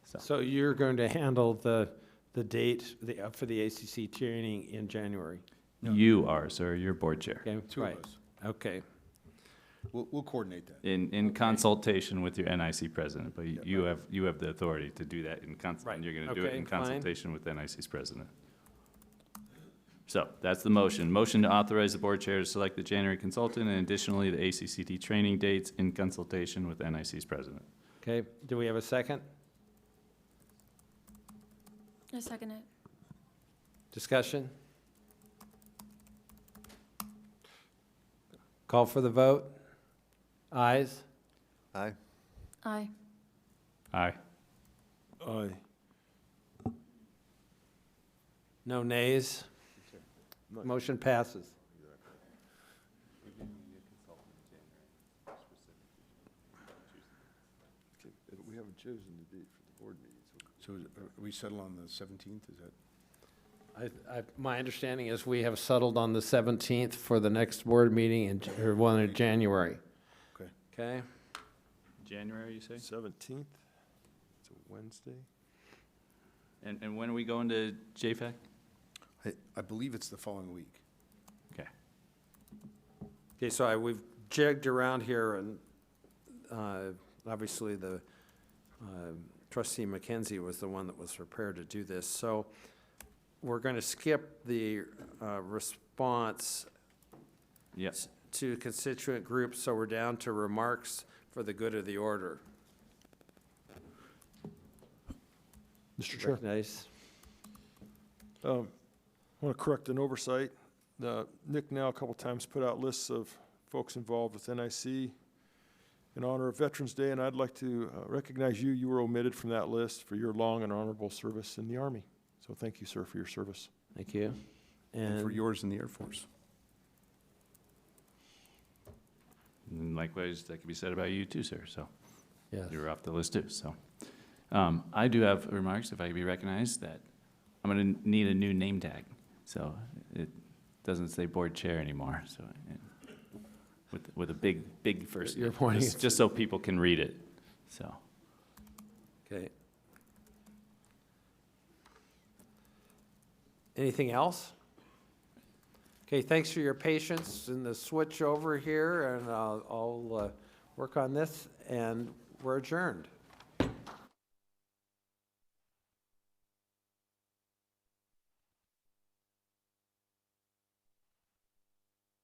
So you're going to handle the, the date, the, uh, for the ACC training in January? No. You are, sir, you're board chair, Okay, Two right, of us. okay, We'll, we'll coordinate that. in, in consultation with your NIC president, but you have, you have the authority to do that in cons, Right, and you're gonna do it okay, in fine. consultation with NIC's president. So, that's the motion, motion to authorize the board chair to select the January consultant and additionally the ACCT training dates in consultation with NIC's president. okay. Do we have a second? I second it. Discussion? Call for the vote? Ayes? Aye. Aye. Aye. Aye. No nays? Motion passes. But we haven't chosen the date for the board meeting, So so is- are we settle on the 17th, is that? I, I, my understanding is we have settled on the 17th for the next board meeting in, J- or one in January. Okay. Okay? January, you say? Seventeenth? It's a Wednesday? And, and when are we going to JFAC? I, I believe it's the following week. Okay. Okay, so I, we've jigged around here and, uh, obviously the, uh, trustee McKenzie was the one that was prepared to do this. So we're going to skip the, uh, response Yes, to constituent groups, so we're down to remarks for the good of the order. Mr. Chair, Nice. um, I want to correct an oversight. The, Nick now a couple times put out lists of folks involved with NIC in honor of Veterans Day, and I'd like to uh, recognize you. You were omitted from that list for your long and honorable service in the Army. So thank you, sir, for your service. Thank you. And for And, yours in the Air Force. and likewise, that could be said about you too, sir, so. yes, You were off the list too, so. Um, I do have remarks, if I could be recognized, that I'm gonna need a new name tag. So it doesn't say board chair anymore, so, and with, with a big, big first. You're pointing just- Just so people can read it, so. okay. Anything else? Okay, thanks for your patience in the switch over here, and I'll, I'll uh, work on this, and we're adjourned.